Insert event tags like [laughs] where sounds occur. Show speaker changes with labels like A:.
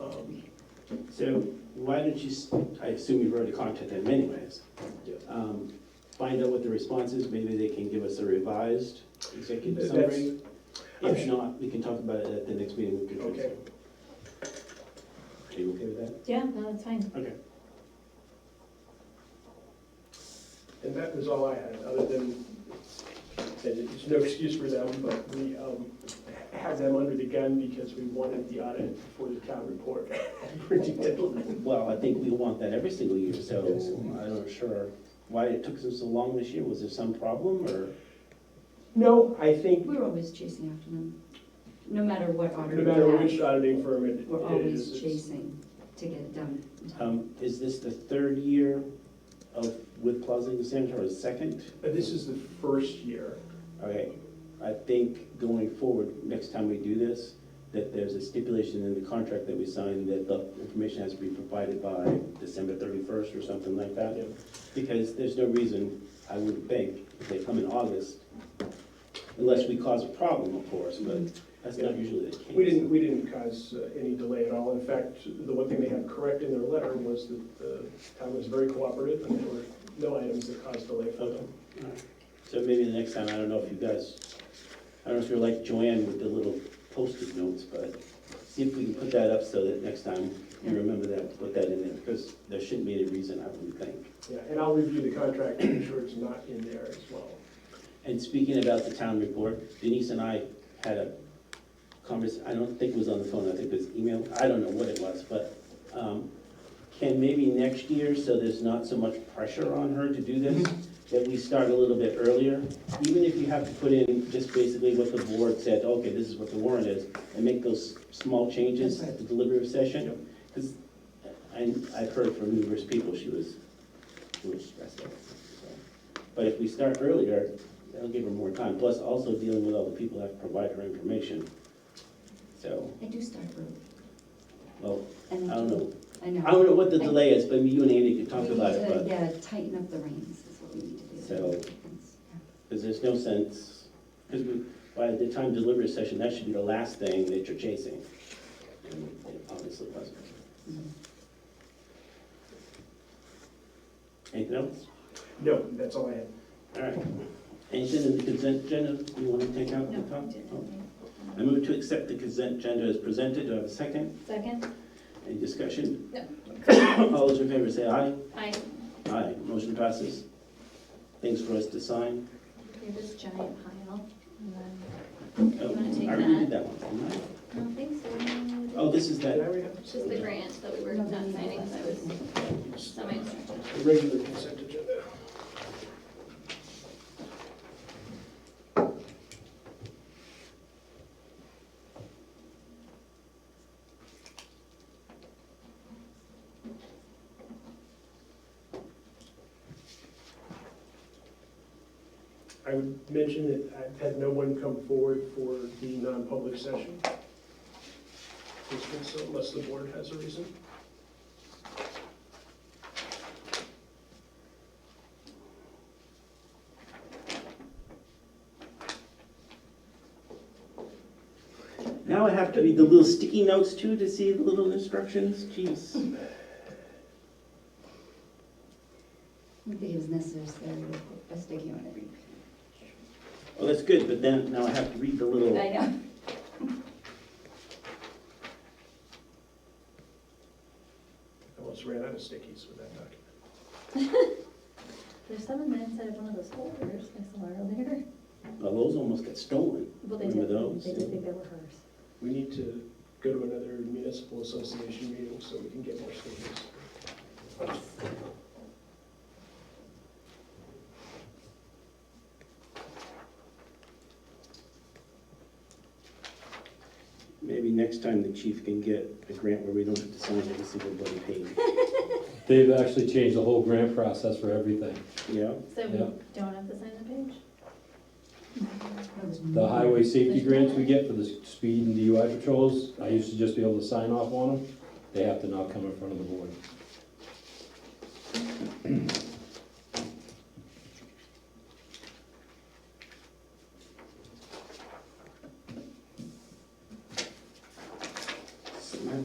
A: Um,
B: So why don't you, s- I assume you've already contacted them anyways.
A: Yeah.
B: Um, Find out what the response is, maybe they can give us a revised executive
A: That's-
B: summary.
A: I'm
B: If
A: su-
B: not, we can talk about it at the next meeting. with Patricia.
A: Okay.
B: Are you okay with that? [laughs]
C: Yeah, no, that's fine.
B: Okay.
A: And that was all I had, other than, and it's no excuse for them, but we um, had them under the gun because we wanted the audit for the town report. Printing deadline.
B: Well, I think we want that every single year, so I'm not sure why it took them so long this year. Was there some problem or?
A: No, I think,
C: We're always chasing after them, no matter what
A: no
C: auditor we
A: matter
C: have.
A: which auditing firm it
C: We're
A: it is,
C: always
A: it's-
C: chasing to get it done.
B: Um, is this the third year of, with Plaza Center or the second?
A: but uh, this is the first year.
B: Okay, I think going forward, next time we do this, that there's a stipulation in the contract that we sign that the information has to be provided by December thirty-first or something like that.
A: Yeah.
B: Because there's no reason, I would think, if they come in August, unless we cause a problem, of course, but that's not usually the case.
A: We didn't, we didn't cause uh, any delay at all. In fact, the one thing they had correct in their letter was that the town was very cooperative and there were no items that caused delay for them.
B: So maybe the next time, I don't know if you guys, I don't know if you're like Joanne with the little post-it notes, but see if we can put that up so that next time you remember that, put that in there, because there shouldn't be any reason, I wouldn't think.
A: Yeah, and I'll review the contract to make sure it's not in there as well.
B: And speaking about the town report, Denise and I had a convers, I don't think it was on the phone, I think it was email, I don't know what it was, but, um, can maybe next year, so there's not so much pressure on her to do
C: [laughs]
B: this, that we start a little bit earlier, even if you have to put in just basically what the board said, okay, this is what the warrant is, and make those small changes
C: That's
B: at
C: right.
B: the deliberative
A: Yep.
B: session, because I, I've heard from numerous people, she was, she was stressed out, so. But if we start earlier, that'll give her more time, plus also dealing with all the people that have to provide her information. So,
C: I do start early.
B: well, I
C: and
B: don't know,
C: I know.
B: I don't know what the delay is, but you and Andy could talk
C: We need
B: about
C: to,
B: it, but,
C: Yeah, tighten up the reins is what we need to do.
B: So- because there's no sense, because we, by the time delivery session, that should be the last thing that you're chasing. And it obviously wasn't.
C: Yeah.
B: Anything else?
A: No, that's all I had.
B: All right. Anything in the consent agenda you want to take out?
C: No,
B: Tom?
C: we didn't.
B: I move to accept the consent agenda as presented. Do I have a second?
C: Second?
B: Any discussion?
C: No.
B: All those in favor say aye.
C: Aye.
B: Aye. Motion passes. Things for us to sign.
C: Here's this giant pile, and then,
B: Oh,
C: You wanna take
B: I already did that one. didn't I?
D: I don't think so.
B: Oh, this is
A: Did I
B: that,
A: already have-
D: It's just the grant that we were not signing, because I was semi-instructed.
A: The regular consent agenda. I would mention that I've had no one come forward for the non-public session. Unless the board has a reason.
B: now I have to read the little sticky notes too to see the little instructions? Jeez.
C: I don't think it was necessary to put a sticky on every.
B: Oh, that's good, but then now I have to read the little.
C: I know.
A: I almost ran out of stickies with that document.
D: There's some in the inside of one of those folders I saw earlier.
B: Well, oh, those almost got stolen.
D: Well, they
B: Remember
D: did,
B: those?
D: they did think they were hers.
A: We need to go to another municipal association meeting so we can get more stickies.
B: Maybe next time the chief can get a grant where we don't have to sign every single bloody
C: [laughs]
B: page.
E: They've actually changed the whole grant process for everything.
B: Yeah?
D: So we
E: Yeah.
D: don't have to sign the page?
C: That was
E: The highway safety
D: There's-
E: grants we get for the speed and DUI patrols, I used to just be able to sign off on them. They have to now come in front of the board.